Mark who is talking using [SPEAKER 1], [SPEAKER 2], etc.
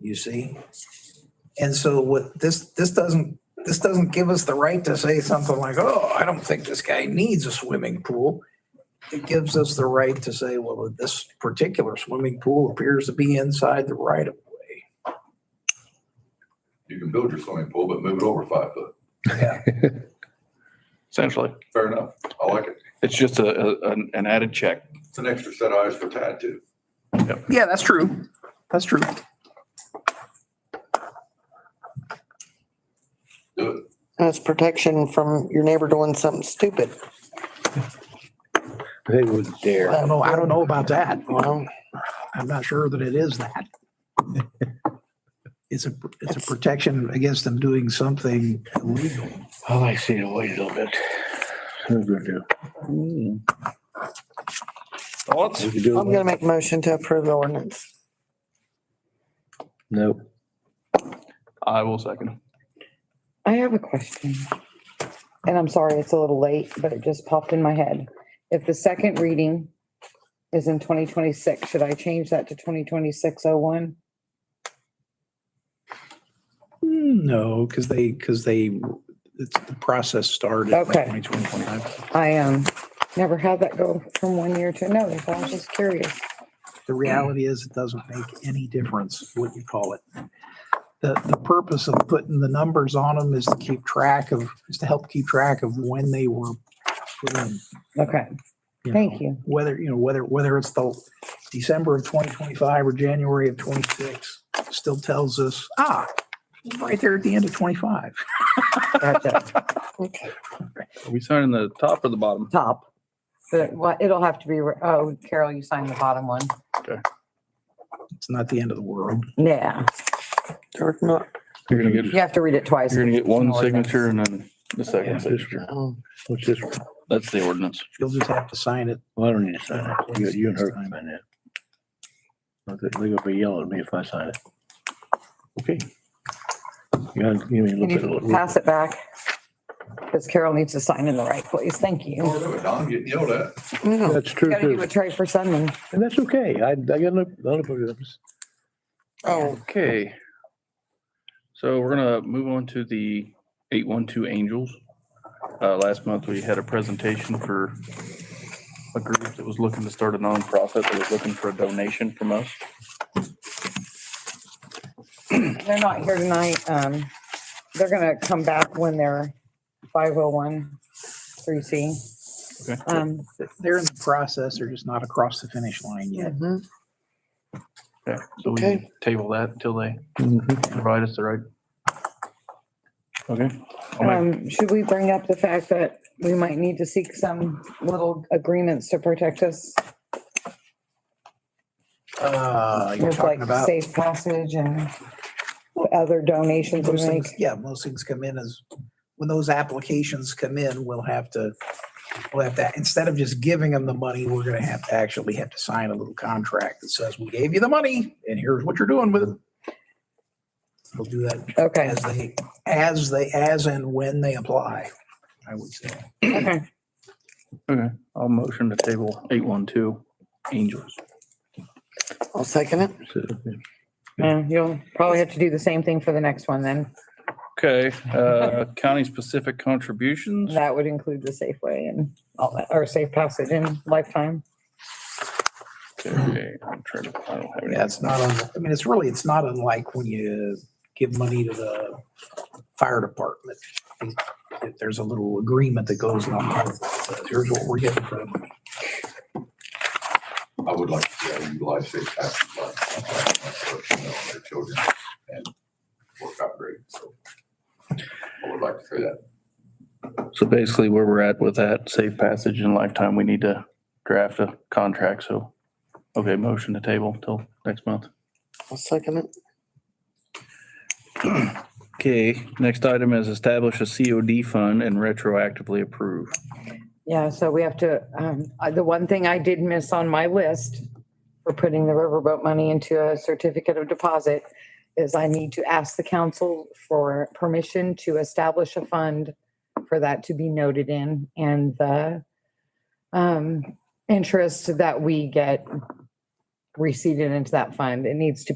[SPEAKER 1] you see? And so what, this, this doesn't, this doesn't give us the right to say something like, oh, I don't think this guy needs a swimming pool. It gives us the right to say, well, this particular swimming pool appears to be inside the right of way.
[SPEAKER 2] You can build your swimming pool, but move it over five foot.
[SPEAKER 3] essentially.
[SPEAKER 2] Fair enough. I like it.
[SPEAKER 3] It's just a, a- an- an added check.
[SPEAKER 2] It's an extra set of eyes for Tad too.
[SPEAKER 3] Yeah, that's true. That's true.
[SPEAKER 2] Do it.
[SPEAKER 4] That's protection from your neighbor doing something stupid.
[SPEAKER 5] They would
[SPEAKER 1] I
[SPEAKER 5] dare.
[SPEAKER 1] don't know, I don't know about that.
[SPEAKER 4] Well,
[SPEAKER 1] I'm not sure that it is that. It's a, it's a protection against them doing something illegal.
[SPEAKER 5] I like seeing it wait a little bit. That's good, too.
[SPEAKER 3] Thoughts?
[SPEAKER 5] We could do
[SPEAKER 4] I'm gonna
[SPEAKER 5] it.
[SPEAKER 4] make a motion to approve the ordinance.
[SPEAKER 5] No,
[SPEAKER 3] I will second.
[SPEAKER 6] I have a question. And I'm sorry, it's a little late, but it just popped in my head. If the second reading is in twenty twenty-six, should I change that to twenty twenty-six oh one?
[SPEAKER 1] No, because they, because they, it's, the process started. in
[SPEAKER 6] Okay.
[SPEAKER 1] 2025.
[SPEAKER 6] I, um, never had that go from one year to another, so I was just curious.
[SPEAKER 1] The reality is it doesn't make any difference what you call it. The, the purpose of putting the numbers on them is to keep track of, is to help keep track of when they were put in.
[SPEAKER 6] Okay,
[SPEAKER 1] you know.
[SPEAKER 6] thank you.
[SPEAKER 1] whether, you know, whether, whether it's the December of 2025 or January of 26, still tells us, ah, right there at the end of 25.
[SPEAKER 6] Gotcha.
[SPEAKER 4] Okay.
[SPEAKER 3] Are we signing the top or the bottom?
[SPEAKER 6] Top. But what, it'll have to be, re- oh, Carol, you signed the bottom one.
[SPEAKER 1] It's not the end of the world.
[SPEAKER 6] Yeah,
[SPEAKER 4] Or not.
[SPEAKER 3] You're gonna get,
[SPEAKER 6] you have to read it twice.
[SPEAKER 3] you're gonna get one
[SPEAKER 6] It's an ordinance.
[SPEAKER 3] signature and then the second signature.
[SPEAKER 4] Oh,
[SPEAKER 5] what's this? one?
[SPEAKER 3] That's the ordinance.
[SPEAKER 1] You'll just have to sign it.
[SPEAKER 5] Well, I don't need to sign it. You, you and her can sign it. Not that They're gonna be yelling at me if I sign it. Okay. You gotta give me a
[SPEAKER 6] Can
[SPEAKER 5] little bit of.
[SPEAKER 6] you pass it back? Because Carol needs to sign in the right place. Thank you.
[SPEAKER 2] Or do it. Don getting yelled at.
[SPEAKER 4] no.
[SPEAKER 5] That's true,
[SPEAKER 6] Gotta do
[SPEAKER 5] too.
[SPEAKER 6] a tray for Sunday.
[SPEAKER 5] And that's okay. I, I got no, no problems.
[SPEAKER 4] Oh,
[SPEAKER 3] Okay. So we're gonna move on to the eight one two Angels. Uh, last month, we had a presentation for a group that was looking to start a nonprofit that was looking for a donation from us.
[SPEAKER 6] They're not here tonight. Um, they're gonna come back when they're five oh one, three C.
[SPEAKER 3] Okay.
[SPEAKER 6] Um,
[SPEAKER 1] They're in the process. They're just not across the finish line yet.
[SPEAKER 4] mhm.
[SPEAKER 3] Yeah, so we
[SPEAKER 4] Okay.
[SPEAKER 3] table that until they
[SPEAKER 5] Mhm.
[SPEAKER 3] provide us the right. Mm-hmm. Okay.
[SPEAKER 1] Oh
[SPEAKER 3] I'll make-
[SPEAKER 6] um, should we bring up the fact that we might need to seek some little agreements to protect us?
[SPEAKER 1] Uh, you're
[SPEAKER 6] With
[SPEAKER 1] talking
[SPEAKER 6] like
[SPEAKER 1] about,
[SPEAKER 6] safe passage and other donations we
[SPEAKER 1] those
[SPEAKER 6] make?
[SPEAKER 1] things, yeah, most things come in as, when those applications come in, we'll have to, we'll have to, instead of just giving them the money, we're going to have to actually have to sign a little contract that says, we gave you the money and here's what you're doing with it. We'll do that
[SPEAKER 6] Okay,
[SPEAKER 1] as they, as they, as and when they apply, I would say.
[SPEAKER 6] okay.
[SPEAKER 3] Okay, I'll motion to table eight one two Angels.
[SPEAKER 4] I'll second it.
[SPEAKER 5] So,
[SPEAKER 6] Yeah, you'll probably have to do the same thing for the next one then.
[SPEAKER 3] Okay, uh, county specific contributions.
[SPEAKER 6] That would include the Safeway and all that, or Safe Passage and Lifetime.
[SPEAKER 3] Okay, I'm trying to, I don't have any.
[SPEAKER 1] Yeah, it's not, un- I mean, it's really, it's not unlike when you give money to the fire department. If There's a little agreement that goes on, here's what we're getting for the money.
[SPEAKER 2] I would like to see how you utilize safe passage by their children and work out great. So I would like to say that.
[SPEAKER 3] So basically where we're at with that safe passage and lifetime, we need to draft a contract, so. Okay, motion to table till next month.
[SPEAKER 4] I'll second it.
[SPEAKER 3] Okay, next item is establish a COD fund and retroactively approve.
[SPEAKER 6] Yeah, so we have to, um, uh, the one thing I did miss on my list for putting the riverboat money into a certificate of deposit is I need to ask the council for permission to establish a fund for that to be noted in and the um, interest that we get receded into that fund. It needs to be.